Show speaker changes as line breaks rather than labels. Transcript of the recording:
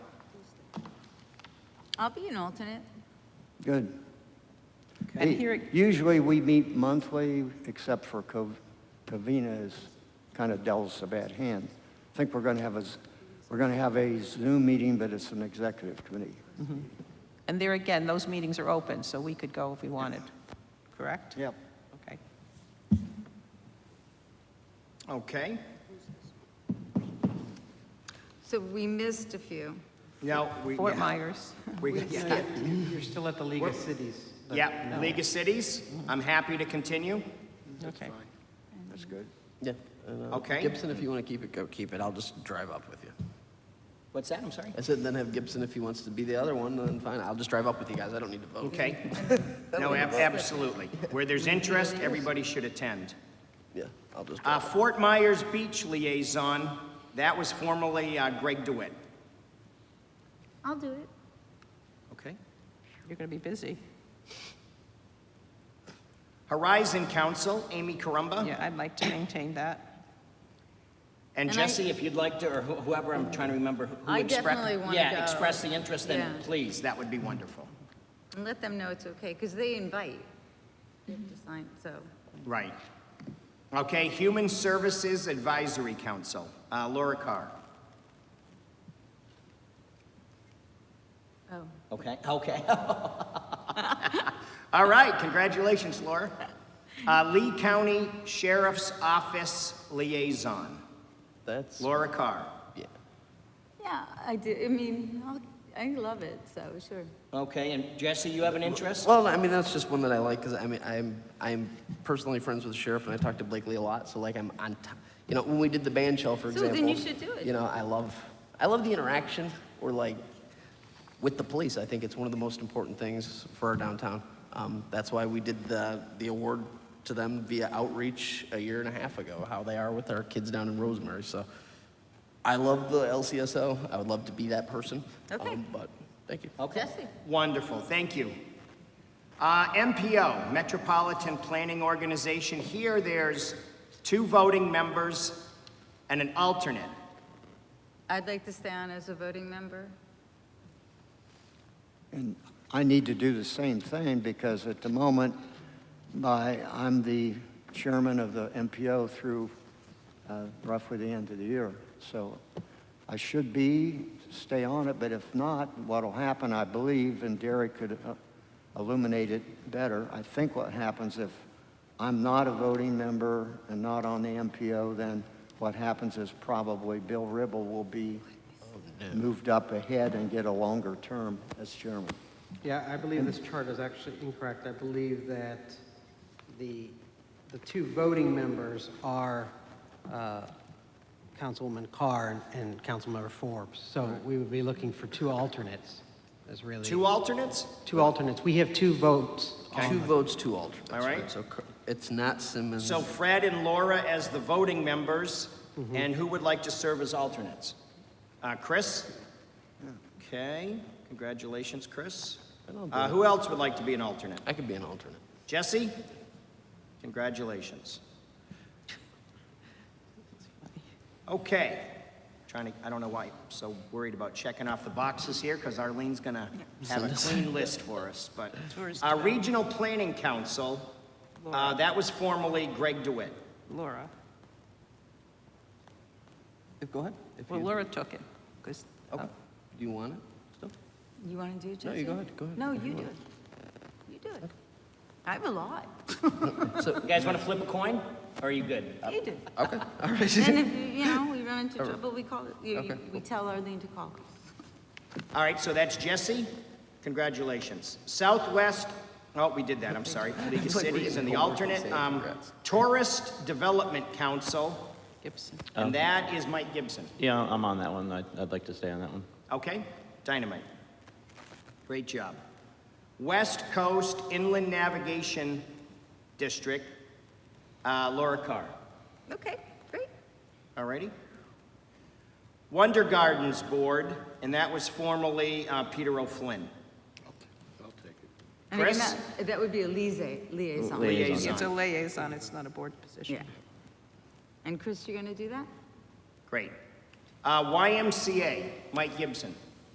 I'll be an alternate.
Good.
And
Hey,
here, ag-
Usually, we meet monthly, except for Cov- Covina is kind of dealt us a bad hand. I think we're going to have a, z- we're going to have a Zoom meeting, but it's an executive committee.
and there again, those meetings are open, so we could go if we wanted, correct?
Yep.
Okay.
Okay.
So we missed a few.
Now, we.
Fort Myers.
We, yeah,
You're still at the League of Cities. but
yeah,
no.
League of Cities, I'm happy to continue.
Okay.
That's good.
Yeah. and, uh,
Okay.
Gibson, if you want to keep it, go keep it. I'll just drive up with you.
What's that, I'm sorry?
I said then have Gibson if he wants to be the other one, then fine. I'll just drive up with you guys. I don't need to vote.
Okay. No, ab- absolutely. Where there's interest, everybody should attend.
Yeah, I'll just
Uh,
drive.
Fort Myers Beach Liaison, that was formerly uh, Greg DeWitt.
I'll do it.
Okay.
You're going to be busy.
Horizon Council, Amy Carumba.
Yeah, I'd like to maintain that.
And
And
I-
Jesse, if you'd like to, or wh- whoever, I'm trying to remember who
I
expressed.
definitely wanna
Yeah,
go.
express the interest, then
Yeah.
please, that would be wonderful.
And let them know it's okay, because they invite. They have to sign, so.
Right. Okay, Human Services Advisory Council, uh, Laura Carr.
Oh,
Okay, okay. All right, congratulations, Laura. Uh, Lee County Sheriff's Office Liaison,
That's,
Laura Carr.
yeah.
yeah, I do, I mean, I'll- I love it, so sure.
Okay, and Jesse, you have an interest?
Well, I mean, that's just one that I like because I mean, I'm I'm personally friends with the sheriff, and I talk to Blakely a lot. So like, I'm on top. You know, when we did the band shell, for
So then
example.
you should do it.
You know, I love I love the interaction or like with the police. I think it's one of the most important things for our downtown. Um, that's why we did the the award to them via outreach a year and a half ago. How they are with our kids down in Rosemary. So I love the LCSO. I would love to be that person. Um,
Okay.
but thank you.
Jesse,
Wonderful, thank you. Uh, MPO, Metropolitan Planning Organization, here there's two voting members and an alternate.
I'd like to stay on as a voting member.
And I need to do the same thing because at the moment, my, I'm the chairman of the MPO through uh, roughly the end of the year. So I should be, stay on it, but if not, what'll happen, I believe, and Derek could uh, illuminate it better, I think what happens if I'm not a voting member and not on the MPO, then what happens is probably Bill Ribble will be moved up ahead and get a longer term as chairman.
Yeah, I believe this chart is actually incorrect. I believe that the, the two voting members are uh, Councilwoman Carr and and Councilmember Forbes. So we would be looking for two alternates, is really.
Two alternates?
Two alternates. We have two votes.
Two votes, two alternates.
All right.
right? So cor- it's not Simmons.
So Fred and Laura as the voting members, and who would like to serve as alternates? Uh, Chris? Okay, congratulations, Chris. Uh, who else would like to be an alternate?
I could be an alternate.
Jesse? Congratulations. Okay. Trying to, I don't know why I'm so worried about checking off the boxes here, because Arlene's gonna have a clean list for us, but.
Tourist
Our Regional Planning Council, uh, that was formerly Greg DeWitt.
Laura.
Go ahead. If
Well, Oh.
you-
Laura took it, uh, because,
Okay. Do you want it still?
You want to do it, Jesse?
No, you go ahead, go ahead.
No,
If you
you do
want.
it. You do it. I have a lot.
You guys wanna flip a coin, or are you good?
You do.
Okay, all
And
right.
if, you know, we run into trouble, we call, you- you- we tell Arlene to call.
All right, so that's Jesse. Congratulations. Southwest, oh, we did that, I'm sorry. League of
like we're
Cities and the
getting homework and
alternate.
saying
um,
congrats.
Tourist Development Council,
Gibson.
Oh.
and that is Mike Gibson.
Yeah, I'm on that one. I'd, I'd like to stay on that one.
Okay? Dynamite. Great job. West Coast Inland Navigation District, uh, Laura Carr.
Okay, great.
All righty? Wonder Gardens Board, and that was formerly uh, Peter O'Flynn.
I mean,
Chris?
that- That would be a liaison. Liaison.
Lia-
Liaison.
It's a liaison, it's not a board position.
Yeah. And Chris, you're going to do that?
Great. Uh, YMCA, Mike Gibson.